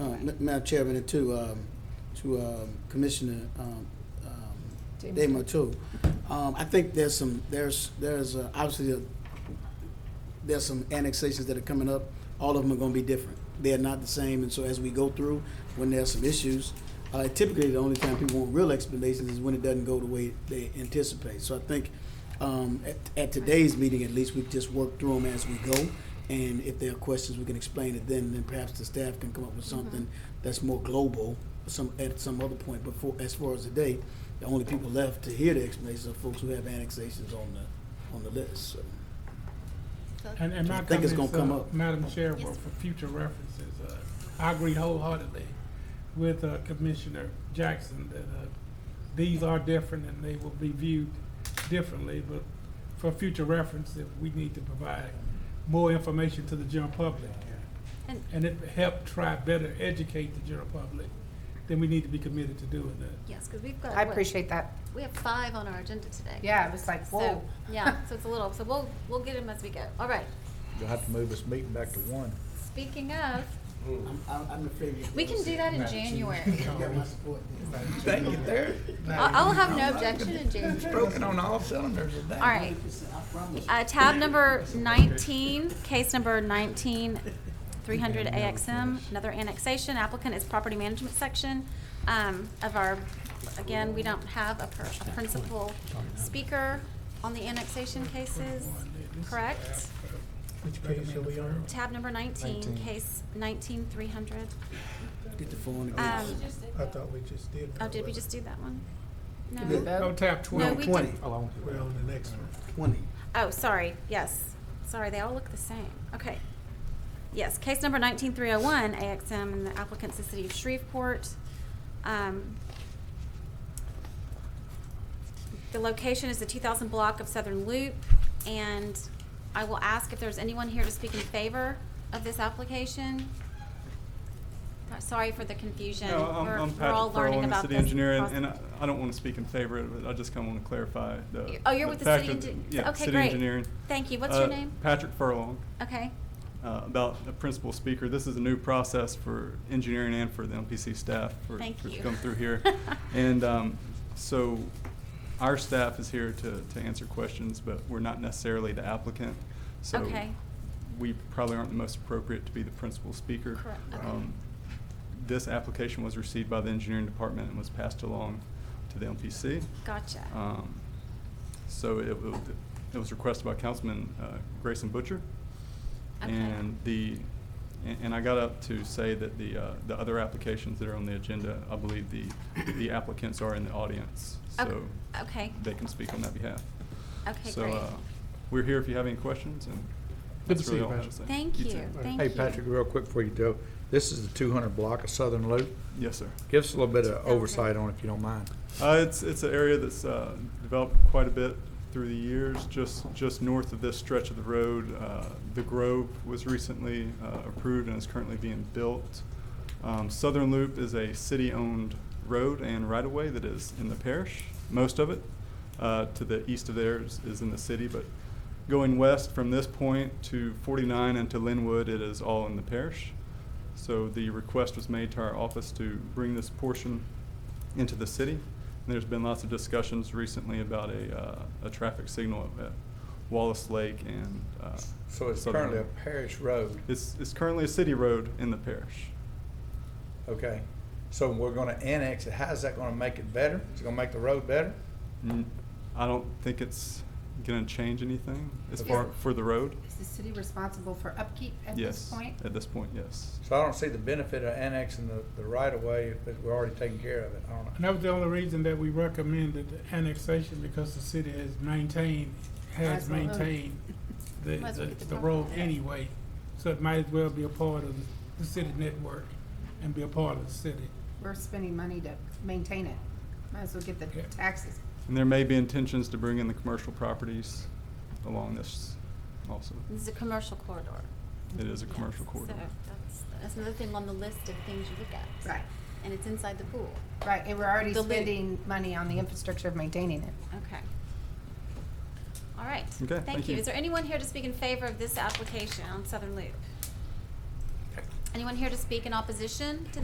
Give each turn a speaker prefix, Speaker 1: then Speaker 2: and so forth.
Speaker 1: Uh, Ma- Madam Chairman, and to, um, to um, Commissioner um, um, Dema too. Um, I think there's some, there's, there's uh, obviously, a- there's some annexations that are coming up. All of them are gonna be different. They're not the same, and so as we go through, when there's some issues, uh, typically the only time people want real explanations is when it doesn't go the way they anticipate. So I think, um, at, at today's meeting, at least, we just work through them as we go. And if there are questions, we can explain it then, then perhaps the staff can come up with something that's more global, some, at some other point, but for, as far as today, the only people left to hear the explanations are folks who have annexations on the, on the list, so.
Speaker 2: And, and
Speaker 1: I
Speaker 2: my
Speaker 1: think it's
Speaker 2: comments,
Speaker 1: gonna come
Speaker 2: uh,
Speaker 1: up.
Speaker 2: Madam Chair, were for future references, uh, I agree wholeheartedly with, uh, Commissioner Jackson that, uh, these are different and they will be viewed differently, but for future reference, if we need to provide more information to the general public.
Speaker 3: And-
Speaker 2: And it help try better educate the general public, then we need to be committed to doing that.
Speaker 3: Yes, because we've got.
Speaker 4: I
Speaker 3: what,
Speaker 4: appreciate that.
Speaker 3: We have five on our agenda today.
Speaker 4: Yeah, it was like,
Speaker 3: So,
Speaker 4: whoa.
Speaker 3: yeah, so it's a little, so we'll, we'll get them as we go. All right,
Speaker 5: You'll have to move this meeting back to one.
Speaker 3: speaking of,
Speaker 1: I'm, I'm I'm afraid. you're
Speaker 3: we can
Speaker 1: gonna
Speaker 3: do
Speaker 1: say-
Speaker 3: that in January.
Speaker 1: You got my support.
Speaker 5: Thank you, there.
Speaker 3: I'll, I'll have no objection in January.
Speaker 5: Broken on all cylinders today.
Speaker 3: All right,
Speaker 1: I promise.
Speaker 3: uh, tab number nineteen, case number nineteen, three hundred AXM, another annexation. Applicant is property management section, um, of our, again, we don't have a per, a principal speaker on the annexation cases, correct?
Speaker 6: Which page are we on?
Speaker 3: Tab number nineteen,
Speaker 5: 19.
Speaker 3: case nineteen three hundred.
Speaker 1: Get the phone again.
Speaker 3: Um,
Speaker 6: I thought we just did.
Speaker 3: oh, did we just do that one?
Speaker 1: did
Speaker 3: No.
Speaker 1: that.
Speaker 2: No tap
Speaker 3: No,
Speaker 2: twelve.
Speaker 3: we
Speaker 1: Twenty.
Speaker 3: did,
Speaker 5: Oh, I won't do
Speaker 6: We're on the next one.
Speaker 1: Twenty.
Speaker 3: oh, sorry, yes. Sorry, they all look the same. Okay. Yes, case number nineteen three oh one, AXM and the applicant's the city of Shreveport. Um, The location is the two thousand block of Southern Loop, and I will ask if there's anyone here to speak in favor of this application. Sorry for the confusion.
Speaker 7: No, I'm,
Speaker 3: We're- we're
Speaker 7: I'm
Speaker 3: all
Speaker 7: Patrick Farwell,
Speaker 3: learning
Speaker 7: I'm the
Speaker 3: about
Speaker 7: city
Speaker 3: this
Speaker 7: engineer, and,
Speaker 3: process.
Speaker 7: and uh, I I don't want to speak in favor of it, I just kind of want to clarify the.
Speaker 3: Oh, you're with the city
Speaker 7: fact of-
Speaker 3: engi-
Speaker 7: Yeah,
Speaker 3: okay,
Speaker 7: city
Speaker 3: great.
Speaker 7: engineering.
Speaker 3: Thank you. What's your
Speaker 7: Uh,
Speaker 3: name?
Speaker 7: Patrick Furlong,
Speaker 3: Okay.
Speaker 7: uh, about the principal speaker. This is a new process for engineering and for the MPC staff for,
Speaker 3: Thank
Speaker 7: for to
Speaker 3: you.
Speaker 7: come through here. And, um, so our staff is here to, to answer questions, but we're not necessarily the applicant. So
Speaker 3: Okay.
Speaker 7: we probably aren't the most appropriate to be the principal speaker.
Speaker 3: Correct, okay.
Speaker 7: Um, This application was received by the engineering department and was passed along to the MPC.
Speaker 3: Gotcha.
Speaker 7: Um, So it, wa- it was requested by Councilman uh, Grayson Butcher.
Speaker 3: Okay.
Speaker 7: And the, and- and I got up to say that the, uh, the other applications that are on the agenda, I believe the, the applicants are in the audience,
Speaker 3: Ok-
Speaker 7: so.
Speaker 3: okay.
Speaker 7: They can speak on that behalf.
Speaker 3: Okay,
Speaker 7: So,
Speaker 3: great.
Speaker 7: uh, we're here if you have any questions and.
Speaker 6: Good to
Speaker 7: that's
Speaker 6: see you,
Speaker 7: really all I have to
Speaker 6: Patrick.
Speaker 7: say.
Speaker 3: Thank
Speaker 7: too.
Speaker 3: you. Thank
Speaker 5: Hey,
Speaker 3: you.
Speaker 5: Patrick, real quick before you go, this is the two hundred block of Southern Loop.
Speaker 7: Yes, sir.
Speaker 5: Give us a little bit of
Speaker 3: Okay.
Speaker 5: oversight on it if you don't mind.
Speaker 7: Uh, it's, it's an area that's uh, developed quite a bit through the years, just, just north of this stretch of the road. Uh, The Grove was recently uh, approved and is currently being built. Um, Southern Loop is a city-owned road and right-of-way that is in the parish, most of it. Uh, To the east of there is, is in the city, but going west from this point to 49 and to Linwood, it is all in the parish. So the request was made to our office to bring this portion into the city. And there's been lots of discussions recently about a, uh, a traffic signal at- at Wallace Lake and. uh,
Speaker 5: So it's
Speaker 7: Southern
Speaker 5: currently a
Speaker 7: Road.
Speaker 5: parish road,
Speaker 7: It's, it's currently a city road in the parish.
Speaker 5: okay? So we're gonna annex it. How's that gonna make it better? Is it gonna make the road better?
Speaker 7: Mm, I don't think it's gonna change anything as
Speaker 4: Okay.
Speaker 7: far, for the road.
Speaker 4: Is the city responsible for upkeep at this
Speaker 7: Yes,
Speaker 4: point?
Speaker 7: at this point, yes.
Speaker 5: So I don't see the benefit of annexing the, the right of way if it- we're already taking care of it. I don't
Speaker 2: And
Speaker 5: know.
Speaker 2: that was the only reason that we recommended the annexation, because the city has maintained, has
Speaker 4: Has well owned.
Speaker 2: maintained the,
Speaker 3: Might as well
Speaker 2: the
Speaker 3: get the
Speaker 2: the
Speaker 3: vote.
Speaker 2: road anyway. So it might as well be a part of the city network and be a part of the city.
Speaker 4: We're spending money to maintain it. Might as well get the
Speaker 2: Yeah.
Speaker 4: taxes.
Speaker 7: And there may be intentions to bring in the commercial properties along this also.
Speaker 3: This is a commercial corridor.
Speaker 7: It is a
Speaker 3: Yes,
Speaker 7: commercial corridor.
Speaker 3: So that's, that's another thing on the list of things you look at.
Speaker 4: Right,
Speaker 3: And it's inside the pool.
Speaker 4: right, and we're already
Speaker 3: The loop.
Speaker 4: spending money on the infrastructure of maintaining it.
Speaker 3: Okay. All right.
Speaker 7: Okay,
Speaker 3: Thank
Speaker 7: thank
Speaker 3: you.
Speaker 7: you.
Speaker 3: Is there anyone here to speak in favor of this application on Southern Loop? Anyone here to speak in opposition to